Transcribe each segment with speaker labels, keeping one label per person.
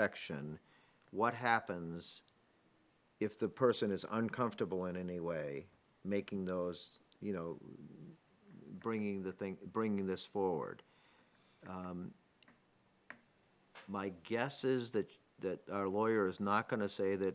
Speaker 1: section, what happens if the person is uncomfortable in any way, making those, you know, bringing the thing, bringing this forward? Um, My guess is that, that our lawyer is not gonna say that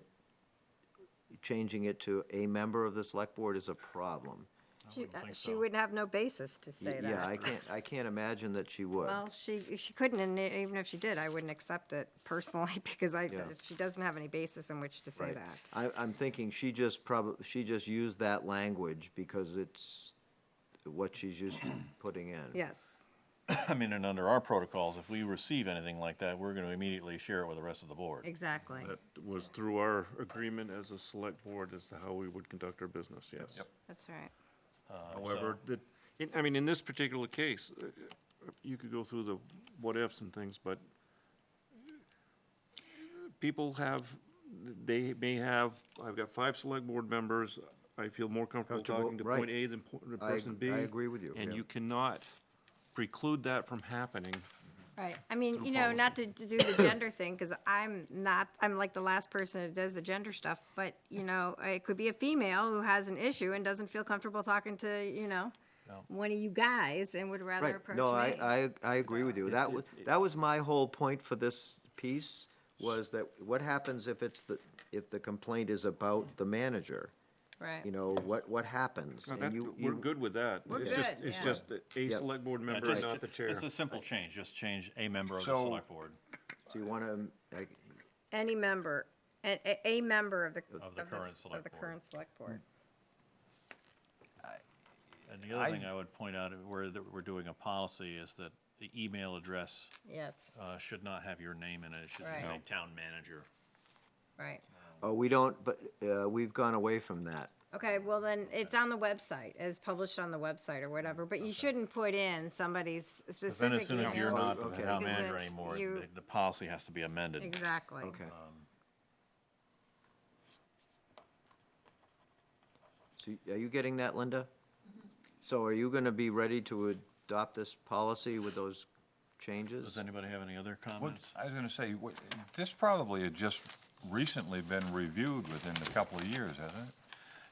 Speaker 1: changing it to a member of the select board is a problem.
Speaker 2: She, uh,
Speaker 3: think
Speaker 2: she
Speaker 3: so.
Speaker 2: wouldn't have no basis to say that.
Speaker 1: Yeah, I can't, I can't imagine that she would.
Speaker 2: Well, she, she couldn't, and e- even if she did, I wouldn't accept it personally, because I, uh,
Speaker 1: Yeah.
Speaker 2: she doesn't have any basis in which to say
Speaker 1: Right.
Speaker 2: that.
Speaker 1: I, I'm thinking she just probably, she just used that language because it's what she's used to putting in.
Speaker 2: Yes,
Speaker 3: I mean, and under our protocols, if we receive anything like that, we're gonna immediately share it with the rest of the board.
Speaker 2: exactly.
Speaker 4: That was through our agreement as a select board as to how we would conduct our business, yes.
Speaker 2: That's right.
Speaker 4: However, the, in- I mean, in this particular case, uh, uh, you could go through the what-ifs and things, but people have, they may have, I've got five select board members, I feel more comfortable
Speaker 1: Comfortable,
Speaker 4: talking to
Speaker 1: right.
Speaker 4: point A than po- to
Speaker 1: I ag-
Speaker 4: person B.
Speaker 1: I agree with you,
Speaker 4: And
Speaker 1: yeah.
Speaker 4: you cannot preclude that from happening.
Speaker 2: Right, I mean, you know, not to, to do the gender thing, because I'm not, I'm like the last person that does the gender stuff, but, you know, it could be a female who has an issue and doesn't feel comfortable talking to, you know, one of you guys and would rather
Speaker 1: Right,
Speaker 2: approach me.
Speaker 1: no, I, I, I agree with you. That was, that was my whole point for this piece, was that what happens if it's the, if the complaint is about the manager? You
Speaker 2: Right,
Speaker 1: know, what, what happens?
Speaker 4: Now,
Speaker 1: And
Speaker 4: that-
Speaker 1: you-
Speaker 4: We're
Speaker 1: you-
Speaker 4: good with that.
Speaker 2: We're
Speaker 4: It's just-
Speaker 2: good,
Speaker 4: It's
Speaker 2: yeah.
Speaker 4: just a
Speaker 1: Yeah.
Speaker 4: select board
Speaker 3: Yeah,
Speaker 4: member,
Speaker 3: just-
Speaker 4: not the chair.
Speaker 3: It's a simple change, just change a member of the
Speaker 5: So-
Speaker 3: select board
Speaker 1: So you wanna, like,
Speaker 2: any member, a, a- a member of the,
Speaker 3: the
Speaker 2: of the,
Speaker 3: current
Speaker 2: s- of
Speaker 3: select
Speaker 2: the
Speaker 3: board.
Speaker 2: current select board.
Speaker 3: And the other thing I would point out, where that we're doing a policy, is that the email address
Speaker 2: Yes,
Speaker 3: uh, should not have your name in it, it should
Speaker 2: Right.
Speaker 3: say town manager.
Speaker 2: right.
Speaker 1: oh, we don't, but, uh, we've gone away from that.
Speaker 2: Okay, well then, it's on the website, as published on the website or whatever, but you shouldn't put in somebody's
Speaker 3: But Then
Speaker 2: specific
Speaker 3: as soon as you're
Speaker 2: email.
Speaker 3: not the
Speaker 1: okay.
Speaker 3: town
Speaker 2: Because
Speaker 3: manager
Speaker 2: if
Speaker 3: anymore,
Speaker 2: you-
Speaker 3: the- the policy has to be amended.
Speaker 2: Exactly.
Speaker 3: Um,
Speaker 1: Okay. So y- are you getting that, Linda?
Speaker 2: Mm-hmm.
Speaker 1: So are you gonna be ready to adopt this policy with those
Speaker 3: Does
Speaker 1: changes?
Speaker 3: anybody have any other
Speaker 5: What-
Speaker 3: comments?
Speaker 5: I was gonna say, what, this probably had just recently been reviewed within a couple of years, hasn't it?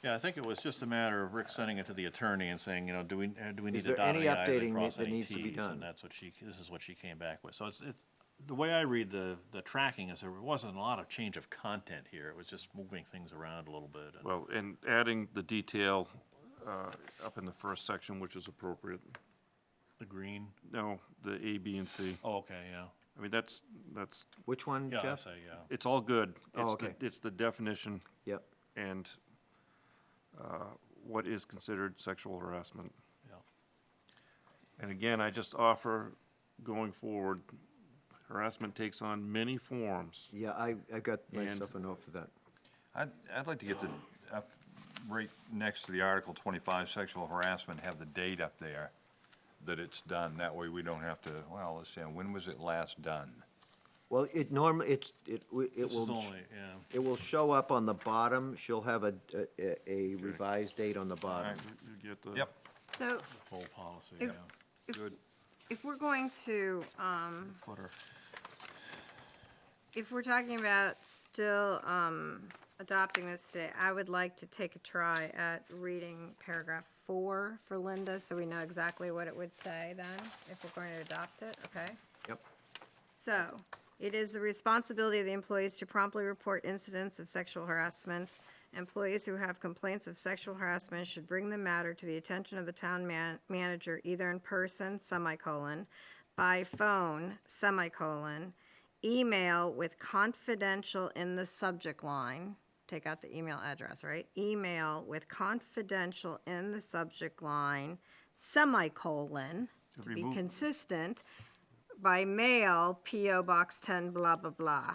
Speaker 3: Yeah, I think it was just a matter of Rick sending it to the attorney and saying, you know, do we, uh, do we need to
Speaker 1: there
Speaker 3: dot
Speaker 1: any
Speaker 3: any i's
Speaker 1: updating
Speaker 3: and cross
Speaker 1: that
Speaker 3: any
Speaker 1: needs to be
Speaker 3: t's?
Speaker 1: done?
Speaker 3: And that's what she, this is what she came back with. So it's, it's, the way I read the, the tracking is there wasn't a lot of change of content here. It was just moving things around a little bit. and-
Speaker 4: Well, and adding the detail uh, up in the first section, which is appropriate.
Speaker 3: The green,
Speaker 4: No, the A, B, and C.
Speaker 3: oh, okay, yeah.
Speaker 4: I mean, that's, that's,
Speaker 1: Which one,
Speaker 3: Yeah, I
Speaker 1: Jeff?
Speaker 3: say, yeah.
Speaker 4: it's all good.
Speaker 1: Oh,
Speaker 4: It's the-
Speaker 1: okay.
Speaker 4: It's the definition
Speaker 1: Yep,
Speaker 4: and uh, what is considered sexual harassment.
Speaker 3: yeah.
Speaker 4: And again, I just offer, going forward, harassment takes on many forms.
Speaker 1: yeah, I, I got
Speaker 4: And-
Speaker 1: myself a note for that.
Speaker 5: I'd, I'd like to get the, up, right next to the Article twenty-five sexual harassment, have the date up there that it's done, that way we don't have to, well, let's see, when was it last done?
Speaker 1: Well, it normally, it's, it, w- it
Speaker 3: This is
Speaker 1: will,
Speaker 3: only, yeah.
Speaker 1: it will show up on the bottom, she'll have a, a- a revised date on the bottom.
Speaker 4: You get the.
Speaker 5: Yep,
Speaker 2: So
Speaker 3: Full policy, yeah.
Speaker 2: If- if, if we're going to, um,
Speaker 4: Footer.
Speaker 2: if we're talking about still, um, adopting this today, I would like to take a try at reading paragraph four for Linda, so we know exactly what it would say then, if we're going to adopt it, okay?
Speaker 1: Yep,
Speaker 2: So, it is the responsibility of the employees to promptly report incidents of sexual harassment. Employees who have complaints of sexual harassment should bring the matter to the attention of the town man, manager either in person, semicolon, by phone, semicolon, email with confidential in the subject line, take out the email address, right? Email with confidential in the subject line, semicolon, to be
Speaker 4: remove-
Speaker 2: consistent, by mail, PO Box ten, blah, blah, blah.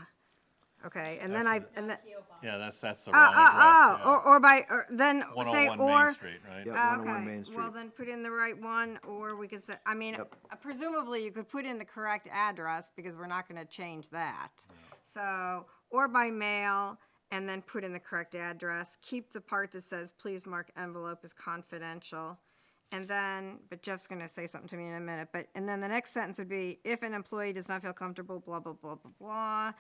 Speaker 2: Okay, and then I, and then,
Speaker 3: Yeah, that's, that's the
Speaker 2: oh,
Speaker 3: wrong
Speaker 2: oh,
Speaker 3: address,
Speaker 2: oh, or,
Speaker 3: yeah.
Speaker 2: or by, or then ah, say,
Speaker 3: 101 Main
Speaker 2: or.
Speaker 3: Street,
Speaker 1: yep,
Speaker 3: right?
Speaker 2: Oh,
Speaker 1: 101 Main
Speaker 2: Okay, well
Speaker 1: Street.
Speaker 2: then put in the right one, or we could say, I mean, uh, presumably you could put in the correct address because we're not gonna change that. So, or by mail and then put in the correct address. Keep the part that says, please mark envelope as confidential. And then, but Jeff's gonna say something to me in a minute, but, and then the next sentence would be, if an employee does not feel comfortable, blah, blah, blah, blah, blah.